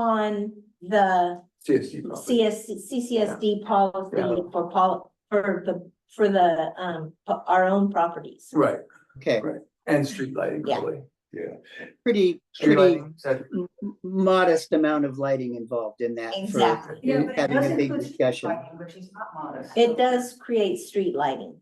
on the CSC property. CS, CCSD policy Yeah. for pol, for the, for the, um, po- our own properties. Right, Okay, and street lighting, Yeah. probably, yeah. pretty, Street pretty lighting, is that, m- m- modest amount of lighting involved in that for Exactly. Yeah, but it having does a big include street discussion. lighting, Which is not modest. It does create street lighting.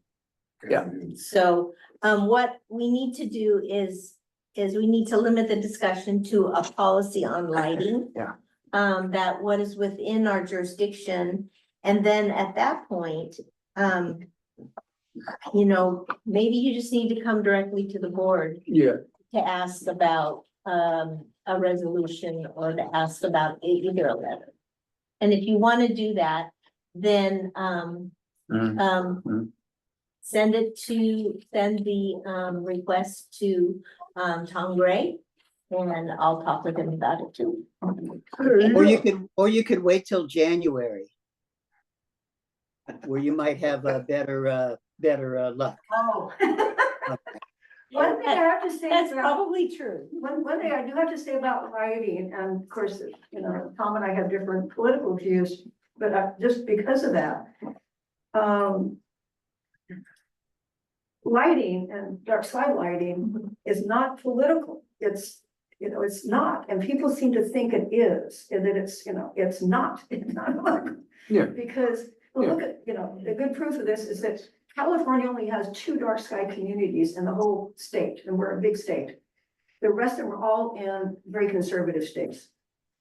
Yeah. So, um, what we need to do is, is we need to limit the discussion to a policy on lighting. Yeah. Um, that what is within our jurisdiction, and then at that point, um. You know, maybe you just need to come directly to the board yeah, to ask about, um, a resolution or to ask about e- either a letter. And if you wanna do that, then, um, Mhm. um, Mhm. send it to, send the, um, request to, um, Tom Gray, and I'll talk with him about it too. Or you could, or you could wait till January. Where you might have a better, uh, better uh, luck. Oh. One thing I have to say That's about, probably true. one, one thing I do have to say about lighting, and of course, you know, Tom and I have different political views, but I- just because of that. Um. Lighting and dark side lighting is not political. It's, you know, it's not, and people seem to think it is, and that it's, you know, it's not, it's not political. Yeah. Because, well, look at, you know, the good proof of this is that California only has two dark sky communities in the whole state, and we're a big state. The rest of them are all in very conservative states.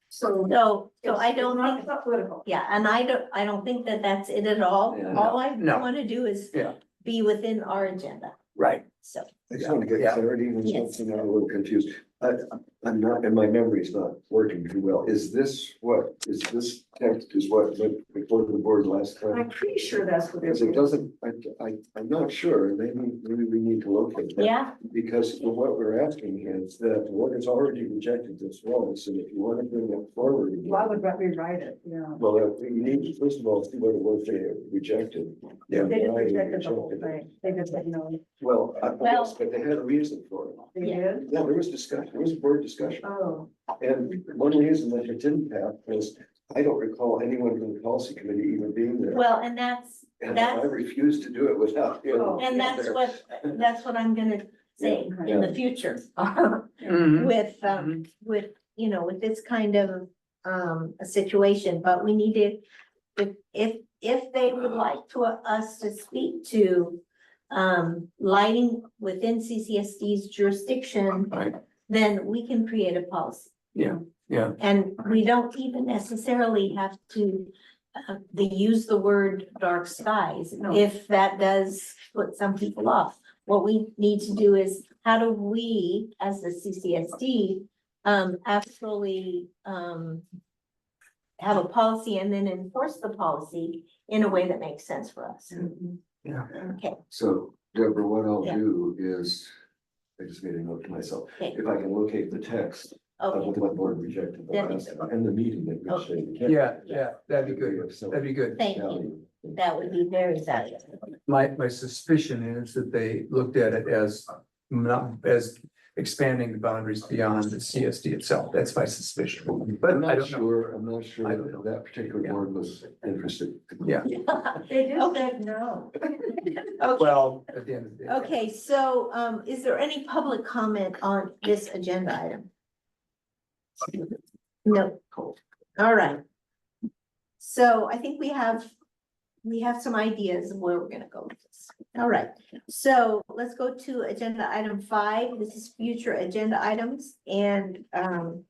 So. So, so it's- I it's don't not- think It's not political. Yeah, and I don't, I don't think that that's it at all. Yeah. All I No. wanna do is Yeah. be within our agenda, right, so. I just want to get Yeah. clarity on Yes. something, I'm a little confused. I, I'm not, and my memory's not working too well. Is this what, is this text is what went before the board last I'm time? pretty sure that's what they're. Because it doesn't, I, I, I'm not sure, maybe, maybe we need to locate that. Yeah, Because what we're asking is that the board has already rejected this once, and if you want to bring it forward. again- Why would we rewrite it? Yeah. Well, uh, we need to first of all see what it was they rejected. Yeah. They just Why they rejected the whole rejected it. thing. They just said, no, Well, I Well- guess, but they had a reason for it. they Yeah. did. Yeah, there was discussion, there was a board discussion. Oh, And one reason that it didn't happen was I don't recall anyone from the policy committee even being there. well, and that's, And I that's, refused to do it without him. Oh. and that's there. what, that's what I'm gonna say in the future. Mhm, With, um, mhm. with, you know, with this kind of, um, a situation, but we need to, if, if, if they would Uh. like to, us to speak to, um, lighting within CCSD's jurisdiction, Right. then we can create a policy. Yeah, yeah. And we don't even necessarily have to, uh, they use the word dark skies, No. if that does put some people off. What we need to do is, how do we, as the CCSD, um, actually, um, have a policy and then enforce the policy in a way that makes sense for us. Mm. mhm. Yeah. Okay, So Deborah, what I'll Yeah. do is, I just made a note to myself, Okay. if I can locate the text of okay, what the board rejected the That'd be last good. time and the meeting that we Okay. should. Yeah, yeah, that'd be good, So- that'd be good. thank you, that would be very valuable. My, my suspicion is that they looked at it as not, as expanding the boundaries beyond the CSD itself. That's my suspicion, but I'm I not don't know. sure, I'm not sure I don't know. that particular Yeah. board was interested. Yeah. They just Okay. said no. Well, at the end of the day. Okay, so, um, is there any public comment on this agenda item? No. All right. So I think we have, we have some ideas of where we're gonna go with this. All right, so let's go to agenda item five. This is future agenda items and, um,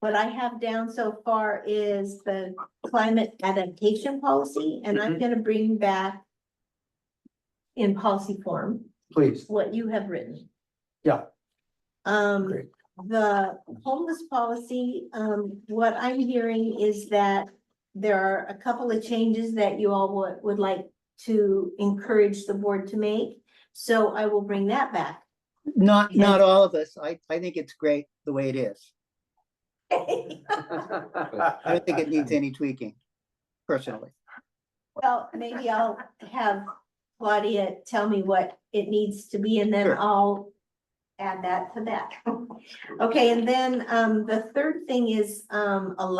what I have down so far is the climate adaptation policy, and I'm gonna bring back in policy form Please, what you have written. Yeah. Um, Great. the homeless policy, um, what I'm hearing is that there are a couple of changes that you all would, would like to encourage the board to make. So I will bring that back. Not, Yeah. not all of us. I, I think it's great the way it is. I don't think it needs any tweaking, personally. Well, maybe I'll have Claudia tell me what it needs to be and then Sure. I'll add that to that. Okay, and then, um, the third thing is, um, a